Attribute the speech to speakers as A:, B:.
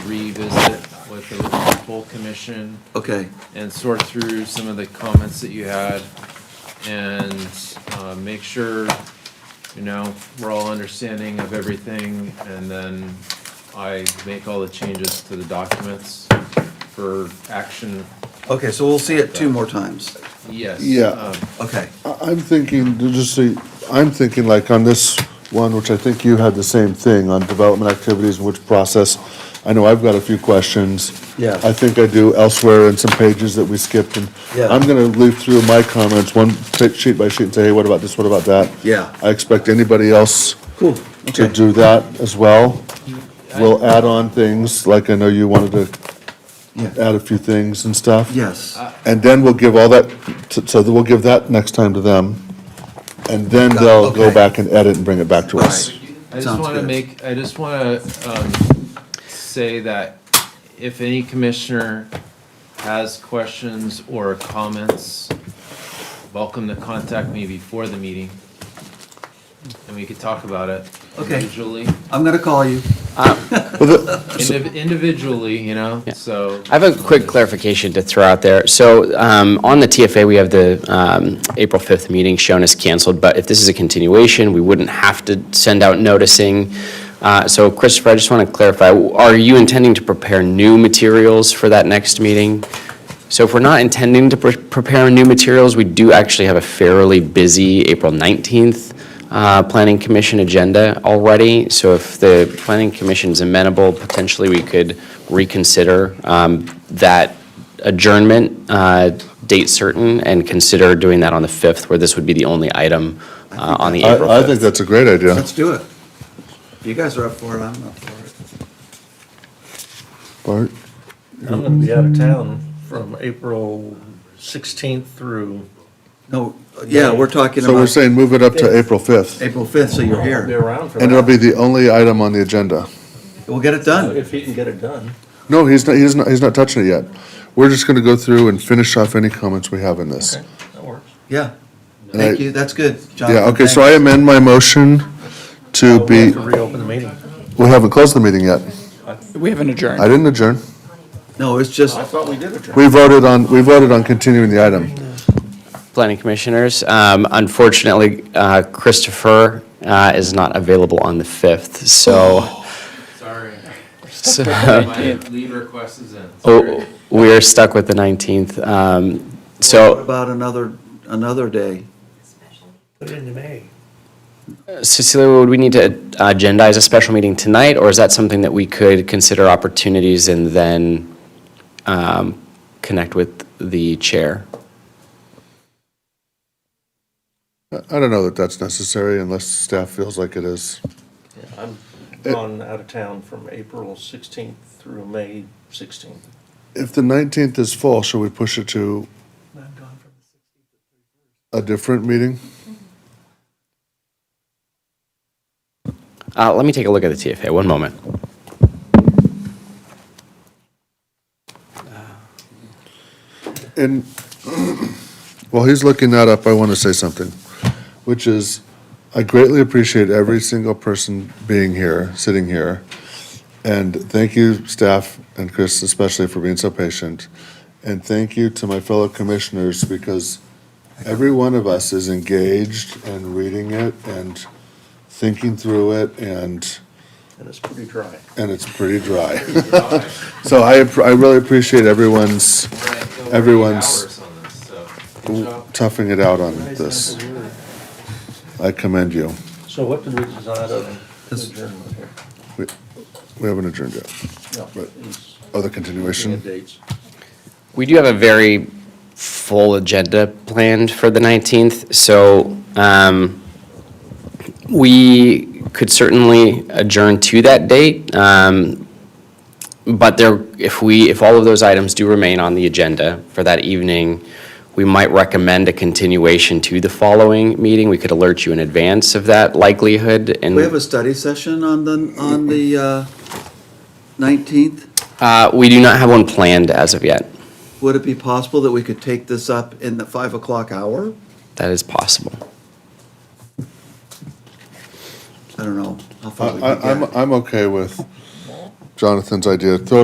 A: revisit with the full commission
B: Okay,
A: and sort through some of the comments that you had and uh, make sure, you know, we're all understanding of everything. And then I make all the changes to the documents for action,
B: okay, so we'll see it two more times.
A: yes.
C: Yeah.
A: um,
B: Okay,
C: I- I'm thinking, to just see, I'm thinking like on this one, which I think you had the same thing on development activities, and which process. I know I've got a few questions.
B: Yeah.
C: I think I do elsewhere in some pages that we skipped and
B: Yeah.
C: I'm gonna leave through my comments, one bit- sheet by sheet and say, hey, what about this, what about that?
B: Yeah.
C: I expect anybody else
B: cool,
C: to
B: okay,
C: do that as well. We'll add on things, like I know you wanted to
B: yeah,
C: add a few things and stuff.
B: yes,
C: And then we'll give all that, t- so that we'll give that next time to them, and then they'll go
B: Okay.
C: back and edit and bring it back to us.
B: Right.
A: I just
B: Sounds
A: want to
B: good.
A: make, I just want to um, say that if any commissioner has questions or comments, welcome to contact me before the meeting. And we could talk about it
B: Okay.
A: individually,
B: I'm gonna call you.
A: Indiv- individually, you know, so.
D: I have a quick clarification to throw out there. So um, on the TFA, we have the um, April 5th meeting shown as canceled, but if this is a continuation, we wouldn't have to send out noticing. Uh, So Christopher, I just want to clarify, are you intending to prepare new materials for that next meeting? So if we're not intending to pre- prepare new materials, we do actually have a fairly busy April 19th uh, Planning Commission agenda already. So if the Planning Commission's amenable, potentially we could reconsider um, that adjournment uh, date certain and consider doing that on the 5th, where this would be the only item uh, on the April
C: I, I think
D: 5th.
C: that's a great idea.
B: Let's do it. If you guys are up for it, I'm up for it.
C: Bart,
E: I'm gonna be out of town from April sixteenth through,
B: No, yeah, we're talking
C: so we're
B: about
C: saying move it up to April 5th,
B: April fifth, so you're
E: I'll be
B: here.
E: around for that.
C: and it'll be the only item on the agenda.
B: We'll get it done.
E: If he can get it done.
C: No, he's not, he's not, he's not touching it yet. We're just gonna go through and finish off any comments we have in this.
E: Okay, that works.
B: Yeah.
C: I-
B: Thank you, that's good, Jonathan.
C: Yeah, okay, so I
B: thanks. Oh,
C: amend my motion to
E: We'll have
C: be,
E: to reopen the meeting.
C: we haven't closed the meeting yet.
F: We haven't adjourned.
C: I didn't adjourn.
B: No, it's just,
E: I thought we did adjourn.
C: We voted on, we voted on continuing the item.
D: Planning Commissioners, um, unfortunately, uh, Christopher uh, is not available on the 5th, so
A: Sorry,
D: so-
A: my leave request is in.
D: Oh, we are stuck with the 19th. Um,
B: what
D: So
B: about another, another day?
D: Cecilia, would we need to agendize a special meeting tonight, or is that something that we could consider opportunities and then um, connect with the chair?
C: I don't know that that's necessary unless staff feels like it is.
E: Yeah, I'm gone out of town from April sixteenth through May sixteenth.
C: If the 19th is full, should we push it to a different meeting?
D: Uh, Let me take a look at the TFA, one moment.
C: And while he's looking that up, I want to say something, which is, I greatly appreciate every single person being here, sitting here. And thank you, staff, and Chris especially, for being so patient. And thank you to my fellow commissioners, because every one of us is engaged and reading it and thinking through it and
E: And it's pretty dry.
C: and it's pretty dry. So I, app- I really appreciate everyone's Everyone's-
A: Hours on this, so, good job.
C: toughing it out on this. I commend you.
E: So what did we decide on adjournment here?
C: We we haven't adjourned yet.
E: No,
C: Right.
E: it's-
C: Other
E: we had
C: continuation?
E: Dates.
D: We do have a very full agenda planned for the 19th, so um, we could certainly adjourn to that date. um, But there, if we, if all of those items do remain on the agenda for that evening, we might recommend a continuation to the following meeting. We could alert you in advance of that likelihood and.
B: We have a study session on the, on the uh, nineteenth?
D: Uh, We do not have one planned as of yet.
B: Would it be possible that we could take this up in the five o'clock hour?
D: That is possible.
B: I don't know. how
C: I,
B: far we could
C: I, I'm,
B: get.
C: I'm okay with Jonathan's idea. Throw